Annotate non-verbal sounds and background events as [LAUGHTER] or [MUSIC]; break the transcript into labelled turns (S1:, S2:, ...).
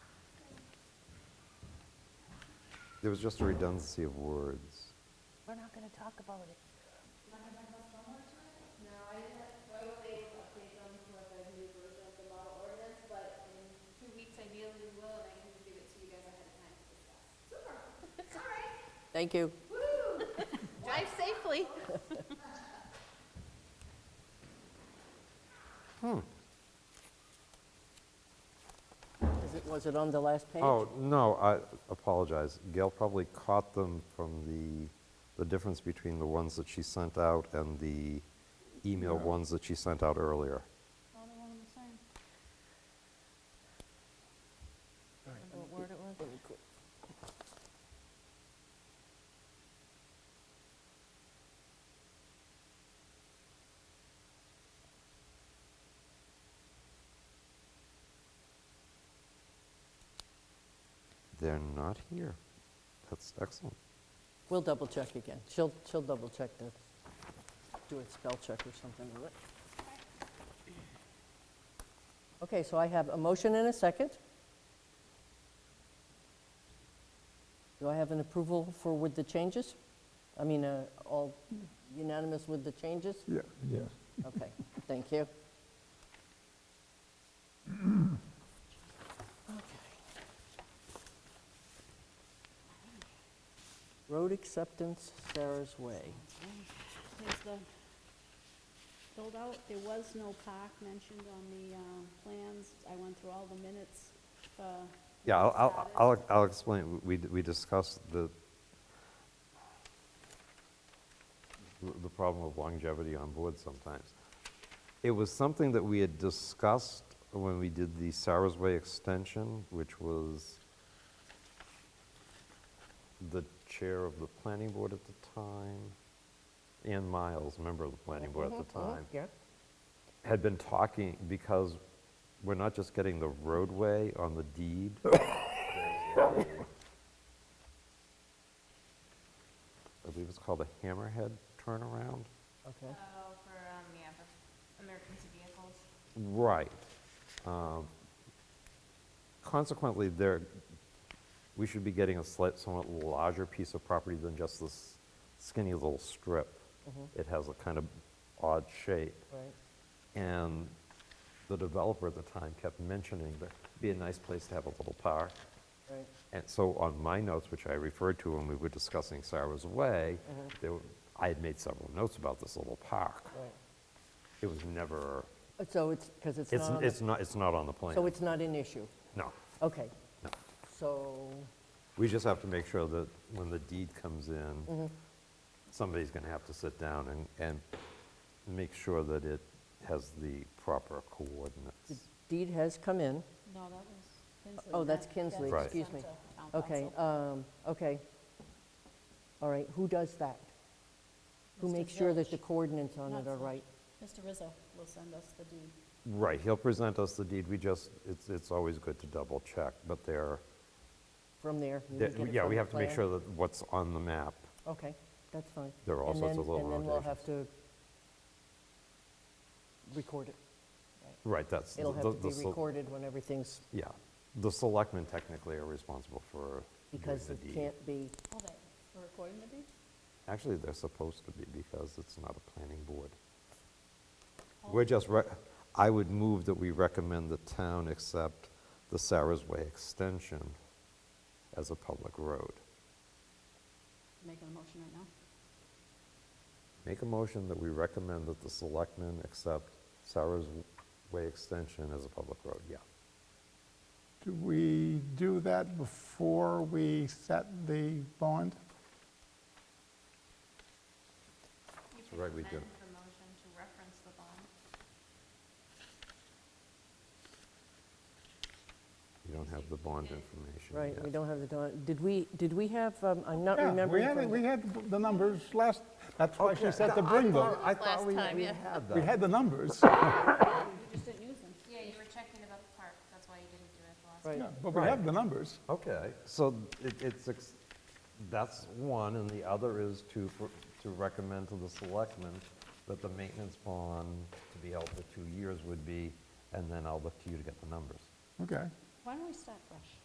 S1: There was just a redundancy of words.
S2: We're not going to talk about it.
S3: No, I didn't, I will wait to update them with the new version of the model ordinance, but in two weeks ideally we will, and I can give it to you guys ahead of time to discuss. Super, all right,
S4: Thank you.
S3: woo!
S2: Drive safely.
S4: Is it, was it on the last page?
S1: Oh, no, I apologize. Gail probably caught them from the, the difference between the ones that she sent out and the email ones that she sent out earlier.
S2: Remember what word it was?
S4: Let me qu-
S1: They're not here. That's excellent.
S4: We'll double check again. She'll, she'll double check the, do a spell check or something with it. Okay, so I have a motion and a second. Do I have an approval for with the changes? I mean, uh, all unanimous with the changes?
S5: Yeah, yes.
S4: Okay, thank you. Okay. Road acceptance, Sarah's Way.
S6: There's the build-out, there was no park mentioned on the um, plans. I went through all the minutes uh, for
S1: Yeah, I'll- I'll, I'll, I'll explain. We, we discussed the, the problem of longevity on board sometimes. It was something that we had discussed when we did the Sarah's Way extension, which was the chair of the planning board at the time, Ann Miles, member of the planning board at the time
S4: Mm-hmm, Yeah.
S1: had been talking, because we're not just getting the roadway on the deed. [COUGHS] I believe it's called a hammerhead turnaround.
S4: Okay,
S3: Oh, for, um, yeah, for emergency vehicles.
S1: Right. Um, Consequently, there, we should be getting a slight, somewhat larger piece of property than just this skinny little strip. It has a kind of odd shape.
S4: right.
S1: And the developer at the time kept mentioning that it'd be a nice place to have a little park.
S4: Right.
S1: And so on my notes, which I referred to when we were discussing Sarah's Way,
S4: Mm-hmm.
S1: there were- I had made several notes about this little park.
S4: Right.
S1: It was never,
S4: So it's, because it's
S1: it's
S4: not, on the-
S1: it's not, it's not on the plan.
S4: so it's not an issue?
S1: No,
S4: Okay,
S1: no.
S4: so,
S1: We just have to make sure that when the deed comes
S4: Mm-hmm.
S1: in, somebody's going to have to sit down and, and make sure that it has the proper
S4: the
S1: coordinates.
S4: deed has come in.
S6: No, that was Kinsley.
S4: Oh, that's
S6: That-
S4: Kinsley,
S1: Right.
S4: excuse me.
S6: sent to town
S4: Okay,
S6: council.
S4: um, okay. All right, who does that? Who
S6: Mr.
S4: makes sure that the
S6: Village.
S4: coordinates on it
S6: Not
S4: are
S6: Village.
S4: right?
S6: Mr. Rizzo will send us the deed.
S1: Right, he'll present us the deed, we just, it's, it's always good to double check, but there,
S4: From there? you
S1: there-
S4: would get it
S1: yeah,
S4: from
S1: we
S4: the
S1: have to make
S4: plan?
S1: sure that what's on the map,
S4: Okay, that's fine.
S1: There are all
S4: And
S1: sorts
S4: then-
S1: of little
S4: And then we'll have to record it.
S1: right, that's.
S4: It'll
S1: the-
S4: have to
S1: the
S4: be
S1: se-
S4: recorded when everything's,
S1: Yeah, the selectmen technically are responsible for doing
S4: because
S1: the
S4: it
S1: deed.
S4: can't be,
S6: Oh, they were recording the deed?
S1: Actually, they're supposed to be, because it's not a planning board.
S4: Oh.
S1: We're just, re- I would move that we recommend the town accept the Sarah's Way extension as a public road.
S6: Making a motion right now.
S1: Make a motion that we recommend that the selectmen accept Sarah's Way extension as a public road, yeah.
S5: Do we do that before we set the bond?
S3: You
S1: can Right, we do. amend
S3: the motion to reference the bond.
S1: You don't have the bond information
S4: right, we
S1: yet.
S4: don't have the, don- did we, did we have, um, I'm not
S5: Yeah, we
S4: remembering.
S5: had,
S4: from
S5: we
S4: the-
S5: had the numbers last, that's why she said to bring them.
S1: I thought
S2: Last
S1: we-
S2: time,
S1: we
S2: yeah.
S1: had
S5: We
S1: that.
S5: had the numbers,
S6: You just didn't use them.
S3: Yeah, you were checking about the park, that's why you didn't do it the last
S4: Right.
S5: yeah, but we have the numbers.
S1: Okay, so it- it's, ex- that's one, and the other is to, for- to recommend to the selectmen that the maintenance bond to be held for two years would be, and then I'll look to you to get the numbers.
S5: Okay.
S6: Why don't we start fresh?